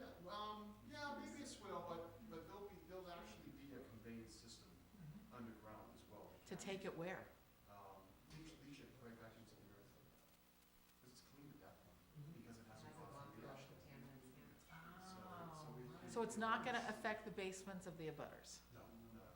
um, take it where? um, leach, leach it right back into the earth. Because it's clean at that point, Mm-hmm. because it hasn't gone through the ocean. So, so we. we- So it's not gonna affect the basements of the abutters? No, no.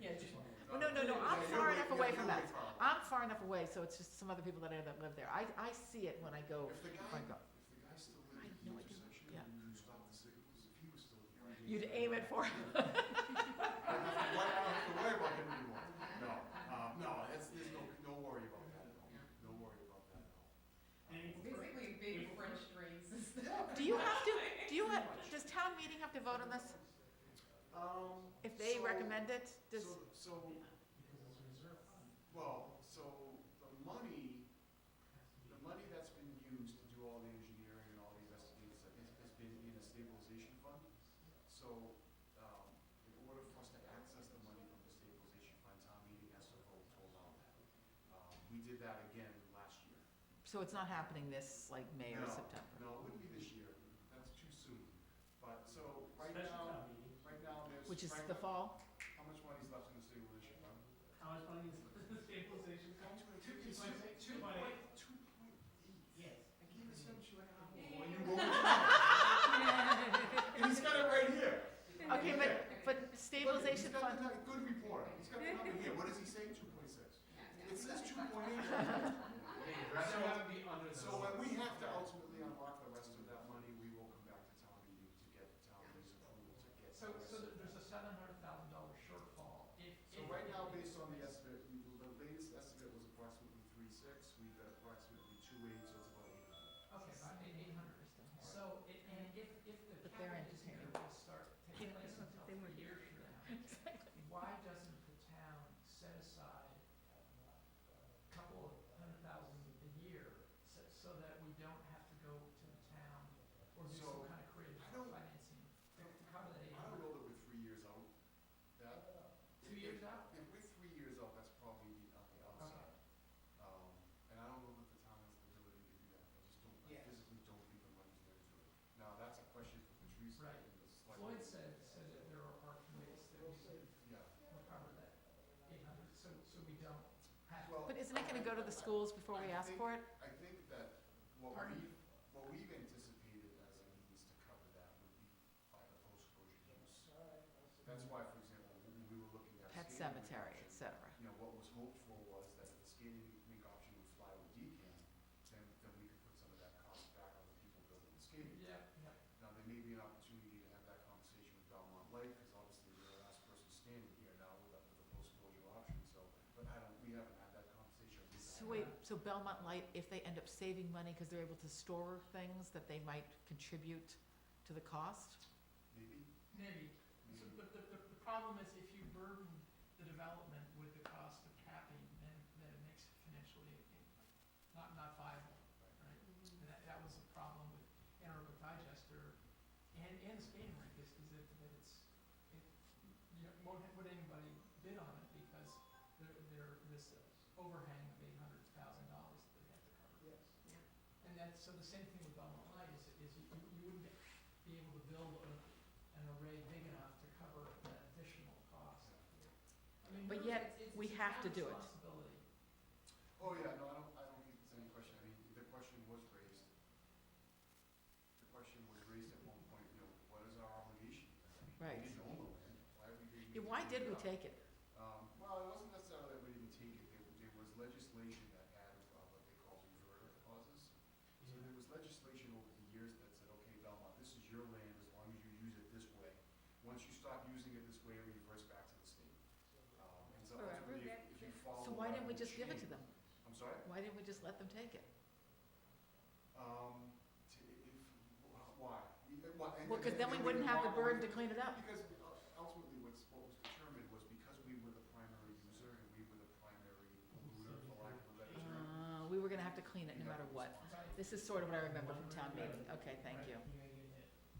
Yeah, Well, Oh, no, no, no, I'm Yeah, far you're- enough away yeah, from you're that. way far. I'm far enough away, so it's just some other people that I don't live there. I, I see it when I go. If the guy, my God. if the guy still I lived had in the no idea. intersection, Yeah. you stop the signals, if he was still here. I'd be- You'd aim it for him. I don't have to worry, I don't have to worry about him anymore. No, um, no, that's, there's no, no worry about that at all, no worry about that at all. And- Basically, big French phrases. Do you have to, do you have, does town meeting have to vote on this? Um. If they so- recommend it, does, So, so, well, so the money, the money that's been used to do all the engineering and all the investigations has, has been in a stabilization fund. So, um, in order for us to access the money from the stabilization fund, town meeting has to vote to allow that. Um, we did that again last year. so it's not happening this, like, May or No, September? No, it wouldn't be this year, that's too soon. But, so, right Special now, town meeting. right now, there's. Which is right the now- fall? How much money's left in the stabilization fund? How much money is the stabilization fund? It's point two- eight. two Two point point eight. Two point eight. Yes. I gave it to him two and a half. Yeah. When you roll it down. And he's got it right here. Okay, but, but stabilization Look, fund, He's got the good report, he's got the number here, what does he say, two point six? It says two point eight. So, so when we have to ultimately unlock the rest of that money, we will come back to town meeting to get town meeting's approval to get. So, the rest so of there- that. there's a seven hundred thousand dollar shortfall. If- So if- right now, based on the estimate, we- the latest estimate was approximately three six, we've got approximately two eight, so it's about eight hundred. Okay, about eight hundred. So, it- and if, if the But they're cap is engineering. going to start taking place until three years from now, why doesn't the town set aside uh, a couple of hundred thousand a year so, so that we don't have to go to the town or do So, some kind of creative I don't- financing to accommodate I don't know that we're three years out. That, two years out? if we're three years out, that's probably the- on the outside. Um, and I don't know that the town has the ability to do that. I just don't, I Yeah. physically don't think the money's there to do it. Now, that's a question for Patrice Right. and the select. Floyd said, said that there are committees that we could Yeah. recover that eight hundred, so, so we don't have to Well, but isn't it gonna go to the I- schools before we ask for it? I think that what Pardon? we've, what we've anticipated as a means to cover that would be by the post-closure use. That's why, for example, when we were looking at. a Pet skating rink cemetery, option, et cetera. You know, what was hoped for was that if the skating rink option would fly with decant, then, then we could put some of that cost back on the people building the skating. rink. Yeah, yeah. Now, there may be an opportunity to have that conversation with Belmont Light, because obviously they're the last person standing here now with a, with a post-closure option, so, but I don't, we haven't had that conversation. We So haven't wait, had- so Belmont Light, if they end up saving money because they're able to store things that they might contribute to the cost? Maybe, Maybe. So, maybe. but the, the, the problem is if you burden the development with the cost of capping, then, then it makes it financially i- not, not viable, right? And that, that was a problem with anaerobic digester and, and the skating rink is, is that, that it's, it, you know, won't, would anybody bid on it because there, there, this overhang of eight hundred thousand dollars that they have to cover. Yes. And that's, so the same thing with Belmont Light is, is you, you you wouldn't be able to build a, an array big enough to cover that additional cost. I mean, But really, yet, it's- it's we a have to town do it. Responsibility. Oh, yeah, no, I don't, I don't think it's any question, I mean, the question was raised. The question was raised at one point, you know, what is our obligation? I mean, Right. We didn't own the land, why we didn't. Yeah, Why did we take it? Um, well, it wasn't necessarily that we didn't take it, there, there was legislation that added, uh, what they call reverter clauses. So there was legislation over the years that said, okay, Belmont, this is your land as long as you use it this way. Once you stop using it this way, it reverts back to the state. Um, and so Forever, ultimately, that- if if you that- follow. So why that didn't we whole just give it to chain- them? I'm sorry? Why didn't we just let them take it? Um, to, if, wh- why? We- uh, why- and- Well, because and- then we and wouldn't have the walk away burden to from- clean it up. Because uh, ultimately, what's, what was determined was because we were the primary user and we were the primary polluter, for lack of a better term. Uh, we were gonna have to clean it no matter what. This is sort of what I remember from town meeting. Okay, thank you. Right.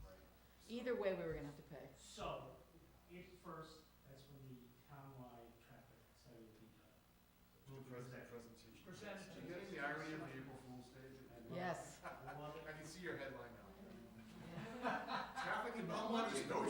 So- Either way, we were gonna have to pay. So, if first, that's when the townwide traffic study will be done. Will be Present- presented. Presentation. Presentation. You getting the irony of the April Fool's Day? Yes. Well, I can see your headline now. Traffic in Belmont is no